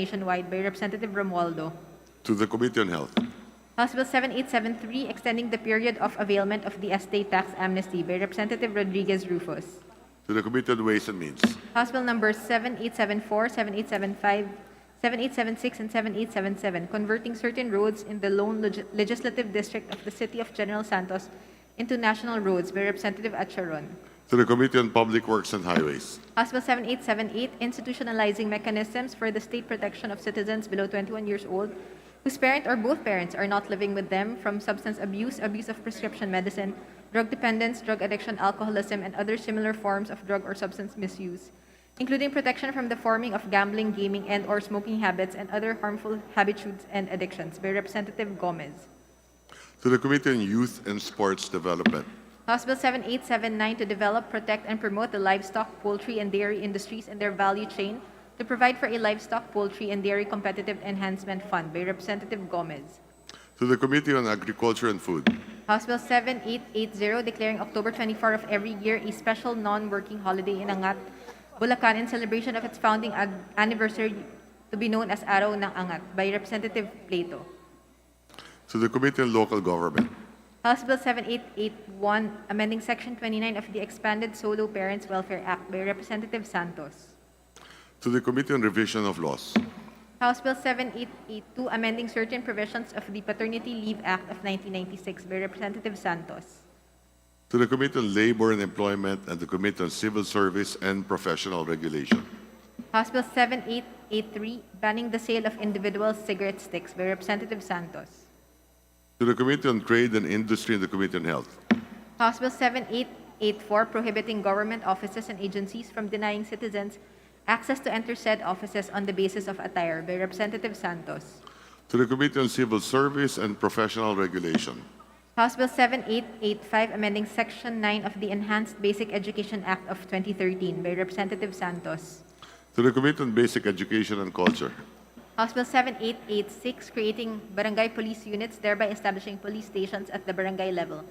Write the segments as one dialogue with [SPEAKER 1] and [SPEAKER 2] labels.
[SPEAKER 1] nationwide by Representative Romualdo.
[SPEAKER 2] to the Committee on Health,
[SPEAKER 1] House Bill 7873, extending the period of availment of the estate tax amnesty by Representative Rodriguez Rufus.
[SPEAKER 2] to the Committee on Ways and Means,
[SPEAKER 1] House Bill numbers 7874, 7875, 7876, and 7877, converting certain roads in the lone leg- legislative district of the city of General Santos into national roads by Representative Acharon.
[SPEAKER 2] to the Committee on Public Works and Highways,
[SPEAKER 1] House Bill 7878, institutionalizing mechanisms for the state protection of citizens below 21 years old whose parent or both parents are not living with them from substance abuse, abuse of prescription medicine, drug dependence, drug addiction, alcoholism, and other similar forms of drug or substance misuse, including protection from the forming of gambling, gaming, and/or smoking habits and other harmful habitudes and addictions by Representative Gomez.
[SPEAKER 2] to the Committee on Youth and Sports Development,
[SPEAKER 1] House Bill 7879 to develop, protect, and promote the livestock, poultry, and dairy industries and their value chain to provide for a livestock, poultry, and dairy competitive enhancement fund by Representative Gomez.
[SPEAKER 2] to the Committee on Agriculture and Food,
[SPEAKER 1] House Bill 7880 declaring October 24 of every year a special non-working holiday in Angat, Bulacan in celebration of its founding ad- anniversary to be known as Araw ng Angat by Representative Plato.
[SPEAKER 2] to the Committee on Local Government,
[SPEAKER 1] House Bill 7881, amending Section 29 of the Expanded Solo Parents Welfare Act by Representative Santos.
[SPEAKER 2] to the Committee on Revision of Laws,
[SPEAKER 1] House Bill 7882, amending certain provisions of the Paternity Leave Act of 1996 by Representative Santos.
[SPEAKER 2] to the Committee on Labor and Employment and the Committee on Civil Service and Professional Regulation,
[SPEAKER 1] House Bill 7883, banning the sale of individual cigarette sticks by Representative Santos.
[SPEAKER 2] to the Committee on Trade and Industry and the Committee on Health,
[SPEAKER 1] House Bill 7884, prohibiting government offices and agencies from denying citizens access to enter said offices on the basis of attire by Representative Santos.
[SPEAKER 2] to the Committee on Civil Service and Professional Regulation,
[SPEAKER 1] House Bill 7885, amending Section 9 of the Enhanced Basic Education Act of 2013 by Representative Santos.
[SPEAKER 2] to the Committee on Basic Education and Culture,
[SPEAKER 1] House Bill 7886, creating barangay police units, thereby establishing police stations at the barangay level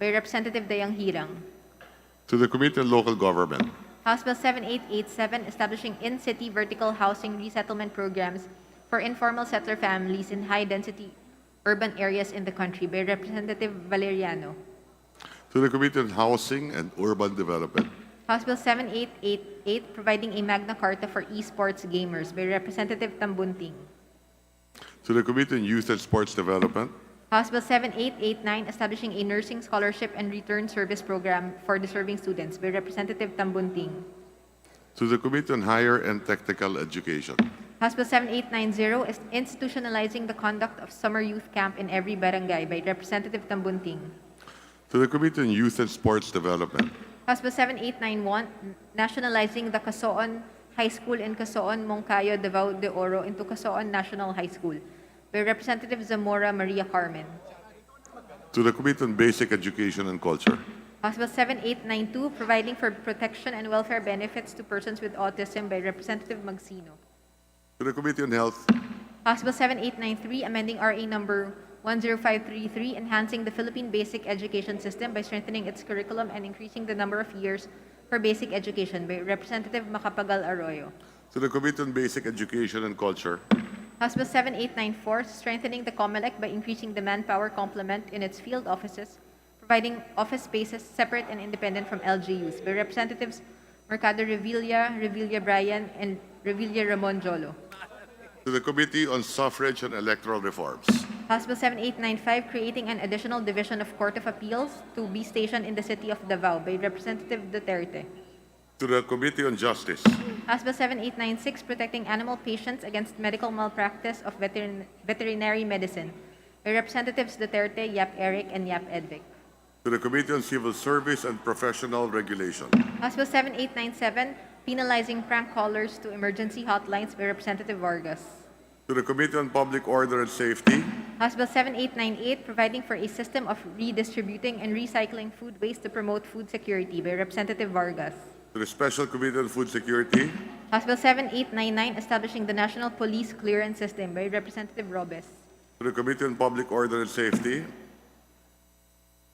[SPEAKER 1] by Representative Dayang Hirang.
[SPEAKER 2] to the Committee on Local Government,
[SPEAKER 1] House Bill 7887, establishing in-city vertical housing resettlement programs for informal settler families in high-density urban areas in the country by Representative Valeriano.
[SPEAKER 2] to the Committee on Housing and Urban Development,
[SPEAKER 1] House Bill 7888, providing a Magna Carta for esports gamers by Representative Tambunting.
[SPEAKER 2] to the Committee on Youth and Sports Development,
[SPEAKER 1] House Bill 7889, establishing a nursing scholarship and return service program for deserving students by Representative Tambunting.
[SPEAKER 2] to the Committee on Higher and Technical Education,
[SPEAKER 1] House Bill 7890, is institutionalizing the conduct of summer youth camp in every barangay by Representative Tambunting.
[SPEAKER 2] to the Committee on Youth and Sports Development,
[SPEAKER 1] House Bill 7891, nationalizing the Casoon High School and Casoon Moncayo Davao de Oro into Casoon National High School by Representative Zamora Maria Carmen.
[SPEAKER 2] to the Committee on Basic Education and Culture,
[SPEAKER 1] House Bill 7892, providing for protection and welfare benefits to persons with autism by Representative Magsino.
[SPEAKER 2] to the Committee on Health,
[SPEAKER 1] House Bill 7893, amending RA number 10533, enhancing the Philippine basic education system by strengthening its curriculum and increasing the number of years for basic education by Representative Macapagal Arroyo.
[SPEAKER 2] to the Committee on Basic Education and Culture,
[SPEAKER 1] House Bill 7894, strengthening the COMELEC by increasing the manpower complement in its field offices, providing office spaces separate and independent from LGUs by Representatives Mercado Revilla, Revilla Bryan, and Revilla Ramon Jolo.
[SPEAKER 2] to the Committee on Suffrage and Electoral Reforms,
[SPEAKER 1] House Bill 7895, creating an additional division of Court of Appeals to be stationed in the city of Davao by Representative Duterte.
[SPEAKER 2] to the Committee on Justice,
[SPEAKER 1] House Bill 7896, protecting animal patients against medical malpractice of veterin- veterinary medicine by Representatives Duterte, Yap Eric, and Yap Edvic.
[SPEAKER 2] to the Committee on Civil Service and Professional Regulation,
[SPEAKER 1] House Bill 7897, penalizing prank callers to emergency hotlines by Representative Vargas.
[SPEAKER 2] to the Committee on Public Order and Safety,
[SPEAKER 1] House Bill 7898, providing for a system of redistributing and recycling food waste to promote food security by Representative Vargas.
[SPEAKER 2] to the Special Committee on Food Security,
[SPEAKER 1] House Bill 7899, establishing the National Police Clearance System by Representative Robes.
[SPEAKER 2] to the Committee on Public Order and Safety,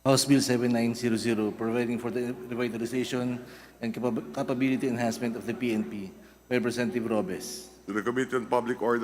[SPEAKER 3] House Bill 7900, providing for the revitalization and capab- capability enhancement of the PNP, by Representative Robes.
[SPEAKER 2] to to the Committee on Public Order